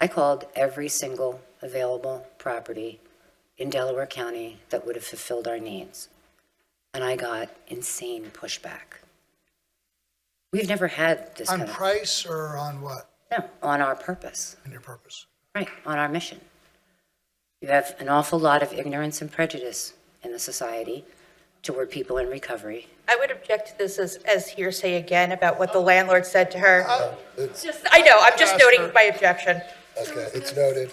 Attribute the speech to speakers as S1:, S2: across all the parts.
S1: I called every single available property in Delaware County that would have fulfilled our needs. And I got insane pushback. We've never had this kind
S2: On
S1: of.
S2: price or on what,
S1: No, on our purpose,
S2: on your purpose?
S1: right, on our mission. You have an awful lot of ignorance and prejudice in the society toward people in recovery.
S3: I would object to this as, as hearsay again about what the landlord said to her.
S4: It's,
S3: Just, I know, I'm just
S2: Ask her.
S3: noting my objection.
S4: okay, it's noted.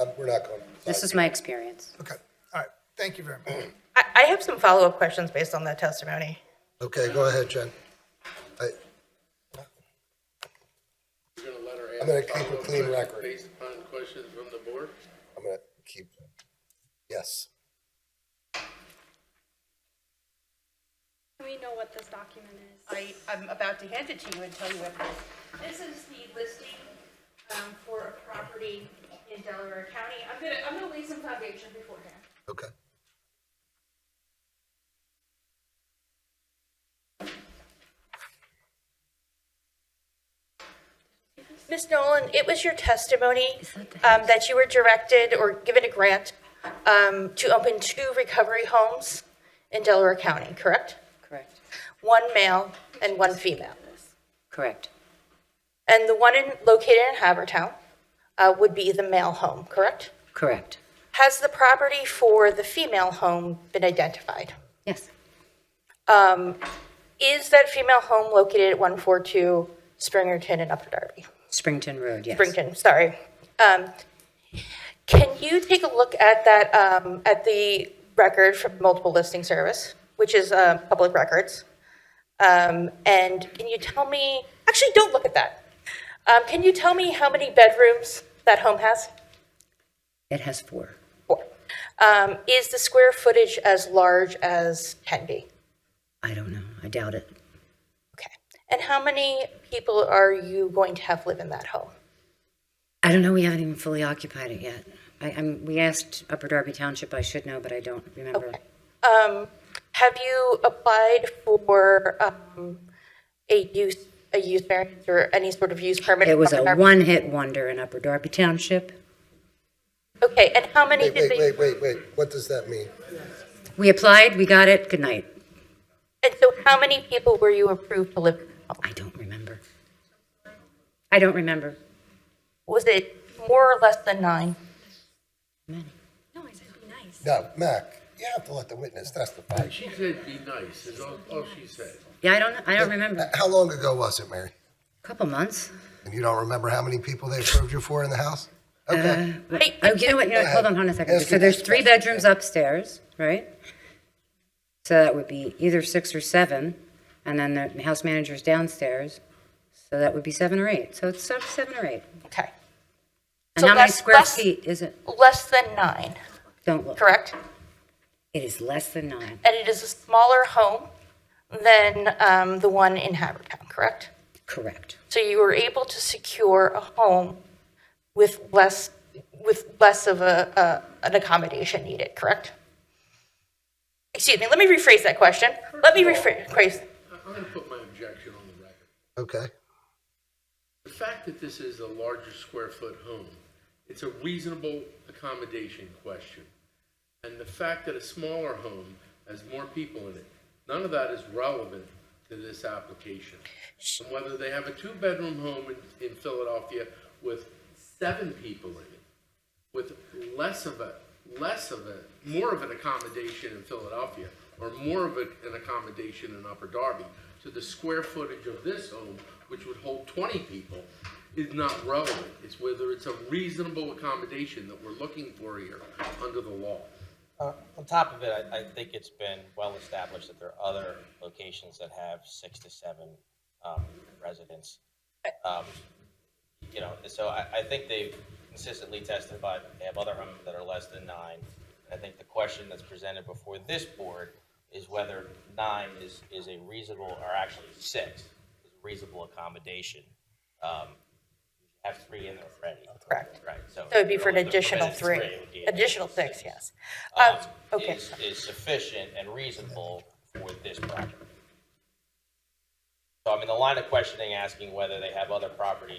S4: Um, We're not going. to
S1: This is my experience.
S2: Okay, all right, thank you very much.
S3: I, I have some follow-up questions based on that testimony.
S4: Okay, go ahead, Jen. I-
S5: You're gonna let her
S4: I'm gonna
S5: ask
S4: keep a
S5: follow-up
S4: clean
S5: questions
S4: record.
S5: Based upon questions from the board?
S4: I'm going to keep, yes.
S6: We know what this document is.
S7: I, I'm about to hand it to you and tell you what it is. This is the listing um, for a property in Delaware County. I'm gonna, I'm gonna lay some foundation beforehand.
S4: Okay.
S3: Ms. Nolan, it was your testimony um, that you were directed or given a grant um, to open two recovery homes in Delaware County, correct?
S1: Correct.
S3: One male and one female.
S1: Correct.
S3: And the one in, located in Havertown uh, would be the male home, correct?
S1: Correct.
S3: Has the property for the female home been identified? Um,
S1: Yes.
S3: Is that female home located at 142 Springerton and Upper Darby?
S1: Springton Road, yes.
S3: Springton, sorry. Um, Can you take a look at that, um, at the record from Multiple Listing Service, which is uh, public records? Um, And can you tell me, actually, don't look at that. Um, Can you tell me how many bedrooms that home has?
S1: It has four.
S3: Four. Um, Is the square footage as large as can be?
S1: I don't know. I doubt it.
S3: Okay. And how many people are you going to have live in that home?
S1: I don't know. We haven't even fully occupied it yet. I, I'm, we asked Upper Darby Township. I should know, but I don't remember.
S3: Okay. Um, have you applied for, um, a use, a use variance or any sort of use permit?
S1: It was
S3: from
S1: a
S3: our-
S1: one-hit wonder in Upper Darby Township.
S3: Okay, and how many
S4: Wait,
S3: did
S4: wait,
S3: they,
S4: wait, wait, wait. What does that mean?
S1: We applied, we got it, good night.
S3: and so how many people were you approved to live?
S1: I don't remember. I don't remember.
S3: Was it more or less than nine?
S6: No, I said be nice.
S4: No, Mac, you have to let the witness testify.
S5: She said be nice, is all, all she said.
S1: Yeah, I don't, I don't remember. A
S4: How long ago was it, Mary?
S1: Couple months.
S4: And you don't remember how many people they approved you for in the house? Okay,
S3: Wait,
S1: Oh, you know what, you know, what, hold on, hold on a second. So there's three bedrooms upstairs, right? So that would be either six or seven, and then the house manager's downstairs. So that would be seven or eight. So it's se- seven or eight.
S3: Okay,
S1: And
S3: So
S1: how many
S3: that's
S1: square
S3: less-
S1: feet is it?
S3: less than nine,
S1: Don't look.
S3: correct?
S1: It is less than nine.
S3: And it is a smaller home than, um, the one in Havertown, correct?
S1: Correct.
S3: So you were able to secure a home with less, with less of a, a, an accommodation needed, correct? Excuse me, let me rephrase that question. Let me rephrase,
S5: I- I'm gonna put my objection on the record.
S4: okay.
S5: The fact that this is a larger square foot home, it's a reasonable accommodation question. And the fact that a smaller home has more people in it, none of that is relevant to this application. And whether they have a two-bedroom home in, in Philadelphia with seven people in it, with less of a, less of a, more of an accommodation in Philadelphia, or more of a- an accommodation in Upper Darby, to the square footage of this home, which would hold twenty people, is not relevant. It's whether it's a reasonable accommodation that we're looking for here under the law.
S8: Uh, On top of it, I, I think it's been well established that there are other locations that have six to seven um, residents. Um, You know, so I, I think they've consistently testified that they have other homes that are less than nine. And I think the question that's presented before this board is whether nine is, is a reasonable, or actually six, is a reasonable accommodation. Um, Have three in there already.
S3: Correct.
S8: Right, so.
S3: that would be for an
S8: if they're
S3: additional
S8: permitted
S3: three,
S8: it would be an
S3: additional six, yes. Um,
S8: um,
S3: Okay,
S8: is, is sufficient and reasonable for this project. So I mean, the line of questioning asking whether they have other properties